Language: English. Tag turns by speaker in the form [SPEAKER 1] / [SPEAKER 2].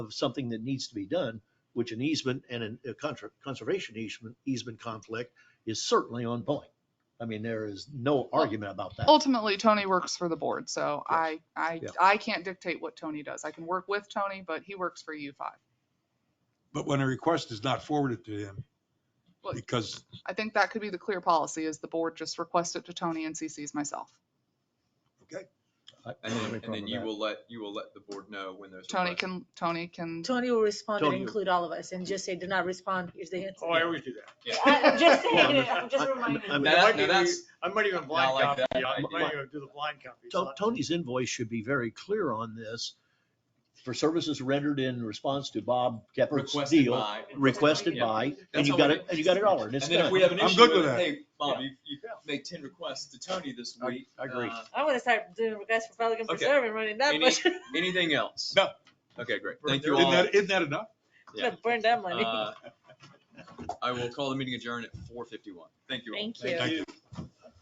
[SPEAKER 1] of something that needs to be done, which an easement and an- a contra- conservation easement, easement conflict is certainly on point. I mean, there is no argument about that.
[SPEAKER 2] Ultimately, Tony works for the board, so I, I,
[SPEAKER 1] Yeah.
[SPEAKER 2] I can't dictate what Tony does. I can work with Tony, but he works for U5.
[SPEAKER 3] But when a request is not forwarded to him,
[SPEAKER 2] Well-
[SPEAKER 3] because,
[SPEAKER 2] I think that could be the clear policy is the board just request it to Tony and CCs myself.
[SPEAKER 3] okay,
[SPEAKER 1] I- I don't
[SPEAKER 4] And
[SPEAKER 1] have
[SPEAKER 4] then,
[SPEAKER 1] any
[SPEAKER 4] and
[SPEAKER 1] problem
[SPEAKER 4] then
[SPEAKER 1] with
[SPEAKER 4] you
[SPEAKER 1] that.
[SPEAKER 4] will let, you will let the board know when there's. a
[SPEAKER 2] Tony
[SPEAKER 4] request.
[SPEAKER 2] can, Tony can,
[SPEAKER 5] Tony will respond and
[SPEAKER 1] Tony will-
[SPEAKER 5] include all of us and just say, do not respond, here's the answer.
[SPEAKER 6] Oh, I always do that.
[SPEAKER 4] Yeah.
[SPEAKER 5] I- I'm just saying, it,
[SPEAKER 1] Well,
[SPEAKER 5] I'm just
[SPEAKER 1] I- I-
[SPEAKER 5] reminding.
[SPEAKER 1] I
[SPEAKER 5] you.
[SPEAKER 1] mean,
[SPEAKER 4] Now,
[SPEAKER 6] I
[SPEAKER 4] that-
[SPEAKER 6] might
[SPEAKER 4] now
[SPEAKER 6] even-
[SPEAKER 4] that's,
[SPEAKER 6] I might even
[SPEAKER 4] Now,
[SPEAKER 6] blind
[SPEAKER 4] like
[SPEAKER 6] copy.
[SPEAKER 4] that
[SPEAKER 6] I
[SPEAKER 4] idea.
[SPEAKER 6] might even do the blind copy.
[SPEAKER 1] To-
[SPEAKER 6] So
[SPEAKER 1] Tony's invoice should be very clear on this. For services rendered in response to Bob Geppert's
[SPEAKER 4] requested
[SPEAKER 1] deal,
[SPEAKER 4] by.
[SPEAKER 1] requested
[SPEAKER 4] Yeah.
[SPEAKER 1] by, and
[SPEAKER 4] That's
[SPEAKER 1] you
[SPEAKER 4] how
[SPEAKER 1] got
[SPEAKER 4] we
[SPEAKER 1] it,
[SPEAKER 4] do
[SPEAKER 1] and you got a dollar, and
[SPEAKER 4] And
[SPEAKER 1] it's
[SPEAKER 4] then if
[SPEAKER 1] done.
[SPEAKER 4] we have an
[SPEAKER 3] I'm
[SPEAKER 4] issue
[SPEAKER 3] good
[SPEAKER 4] with
[SPEAKER 3] with
[SPEAKER 4] it,
[SPEAKER 3] that.
[SPEAKER 4] hey, Bob,
[SPEAKER 1] Yeah.
[SPEAKER 4] you, you made ten requests to Tony this
[SPEAKER 1] I-
[SPEAKER 4] week.
[SPEAKER 1] I agree.
[SPEAKER 4] Uh,
[SPEAKER 5] I'm gonna start doing requests for Pelican
[SPEAKER 4] Okay.
[SPEAKER 5] Preserve and running that
[SPEAKER 4] Any-
[SPEAKER 5] much,
[SPEAKER 4] Anything else?
[SPEAKER 3] No.
[SPEAKER 4] Okay, great.
[SPEAKER 6] We're
[SPEAKER 4] Thank
[SPEAKER 6] there.
[SPEAKER 4] you
[SPEAKER 3] isn't
[SPEAKER 4] all.
[SPEAKER 3] that, isn't that enough?
[SPEAKER 4] Yeah.
[SPEAKER 5] Gonna burn that money.
[SPEAKER 4] Uh, I will call the meeting adjourned at four fifty-one. Thank you all.
[SPEAKER 5] Thank you.
[SPEAKER 3] Thank you.